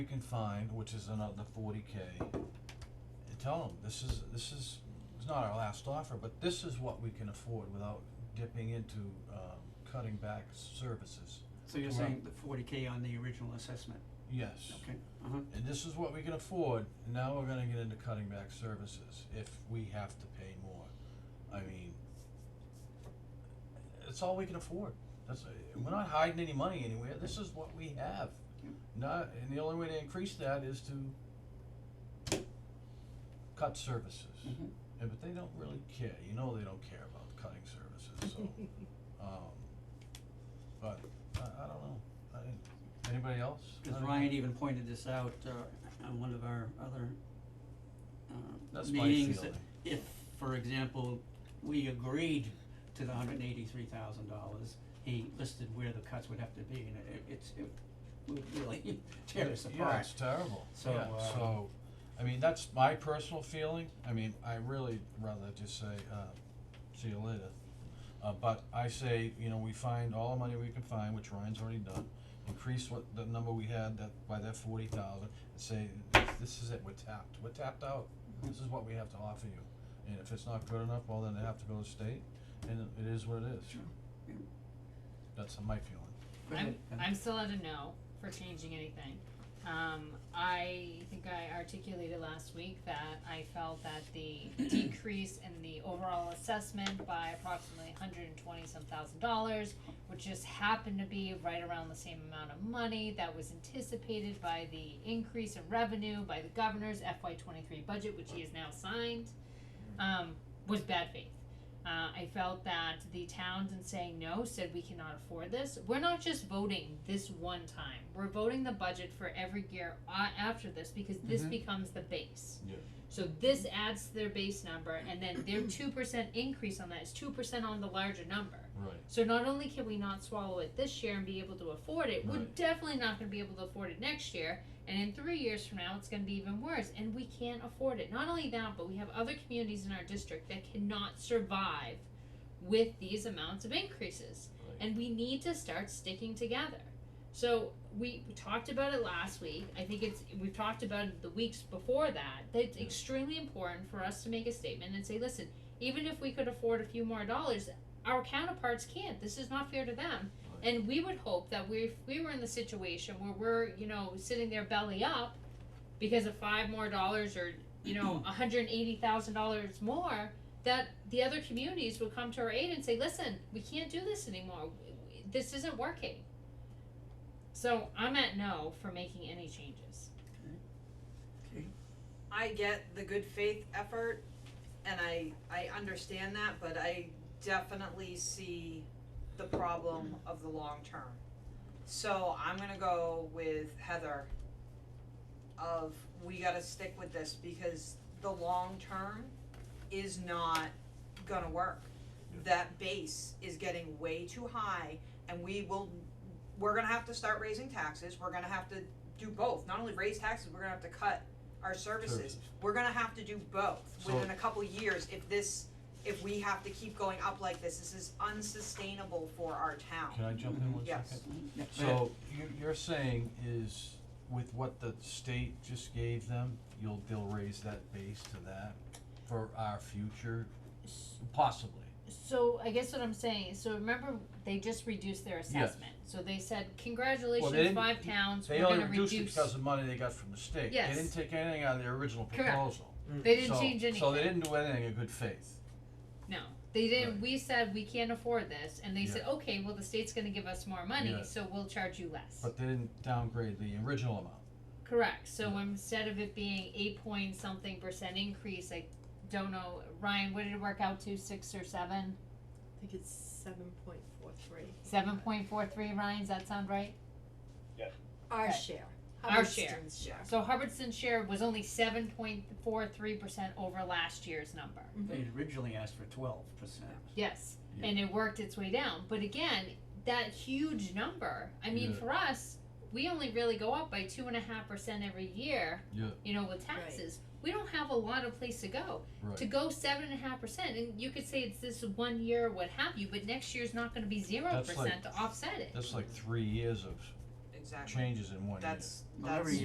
you can find, which is another forty K, and tell them, this is, this is, it's not our last offer, but this is what we can afford without dipping into, um, cutting back services. So you're Right. saying the forty K on the original assessment, Yes. okay, uh-huh, And this is what we can afford, and now we're gonna get into cutting back services if we have to pay more. I mean, it's all we can afford. That's, we're not hiding any money anywhere. This is what we have. Yep. Not, and the only way to increase that is to cut services. mhm. Yeah, but they don't really care. You know they don't care about cutting services, so, um, but I, I don't know. I, anybody else? I Cause don't know. Ryan even pointed this out, uh, on one of our other, uh, That's my meetings that feeling. if, for example, we agreed to the hundred and eighty-three thousand dollars, he listed where the cuts would have to be, and it, it's, it would really tear us Yeah, apart. it's terrible. So, Yeah, uh, so, I mean, that's my personal feeling. I mean, I really rather just say, uh, see you later. Uh, but I say, you know, we find all the money we can find, which Ryan's already done, increase what, the number we had that, by that forty thousand, and say, this, this is it, we're tapped, we're tapped out. Mm-hmm. This is what we have to offer you. And if it's not good enough, well, then they have to go to state, and it is what it is. Sure. Yeah. That's my feeling. Go I'm, ahead, Ben. I'm still at a no for changing anything. Um, I think I articulated last week that I felt that the decrease in the overall assessment by approximately hundred and twenty some thousand dollars, which just happened to be right around the same amount of money that was anticipated by the increase in revenue by the governor's FY twenty-three budget, which he has now signed, um, was bad faith. Uh, I felt that the towns in saying no said we cannot afford this. We're not just voting this one time. We're voting the budget for every year a- after this because this Mhm. becomes the base. Yeah. So this adds to their base number, and then their two percent increase on that is two percent on the larger number. Right. So not only can we not swallow it this year and be able to afford it, we're Right. definitely not going to be able to afford it next year. And in three years from now, it's going to be even worse, and we can't afford it. Not only that, but we have other communities in our district that cannot survive with these amounts of increases, Right. and we need to start sticking together. So we, we talked about it last week. I think it's we've talked about it the weeks before that. That it's Yeah. extremely important for us to make a statement and say, listen, even if we could afford a few more dollars, our counterparts can't. This is not fair to them. Right. And we would hope that we, if we were in the situation where we're, you know, sitting there belly up because of five more dollars or, you know, $180,000 more, that the other communities would come to our aid and say, listen, we can't do this anymore. This isn't working. So I'm at no for making any changes. I get the good faith effort and I I understand that, but I definitely see the problem of the long term. So I'm gonna go with Heather of we gotta stick with this because the long term is not gonna work. That base is getting way too high and we will we're gonna have to start raising taxes, we're gonna have to do both, not only raise taxes, we're gonna have to cut our services. Services. We're gonna have to do both So- within a couple years if this, if we have to keep going up like this, this is unsustainable for our Can town. I jump in one second? Yes. Yeah, go ahead. So you you're saying is with what the state just gave them, you'll they'll raise that base to that for our future, possibly. So I guess what I'm saying, so remember they just reduced their assessment. So they said, Well, congratulations, they didn't- five towns, They we're only gonna reduced it reduce. because of money they got from the state. Yes. They didn't take anything out of their original Correct. proposal. They didn't So- change anything. So they didn't do anything in good faith. No, they didn't. Right. We said we can't afford this, and they Yeah. said, okay, well the state's gonna give us more money, Yeah. so we'll charge you less. But they didn't downgrade the original amount. Correct. So Yeah. instead of it being eight point something percent increase, I don't know, Ryan, what did it work out to? Six or seven? I think it's seven point four three. Seven point four three. Ryan, does that sound right? Our Right. share. Our share. Hubbardston's share. So Hubbardston's share was only seven point four three percent over last year's number. Mm-hmm. They originally asked for twelve percent. Yes, Yeah. and it worked its way down. But again, that huge number. I mean, Yeah. for us, we only really go up by two and a half percent every year. Yeah. You know, with Right. taxes, we don't have a lot of place to go. To Right. go seven and a half percent, and you could say it's this one year, or what have you, but next year's not going to be zero That's like- percent to offset it. That's like three years of Exactly, changes in one year. that's, Well, that's. every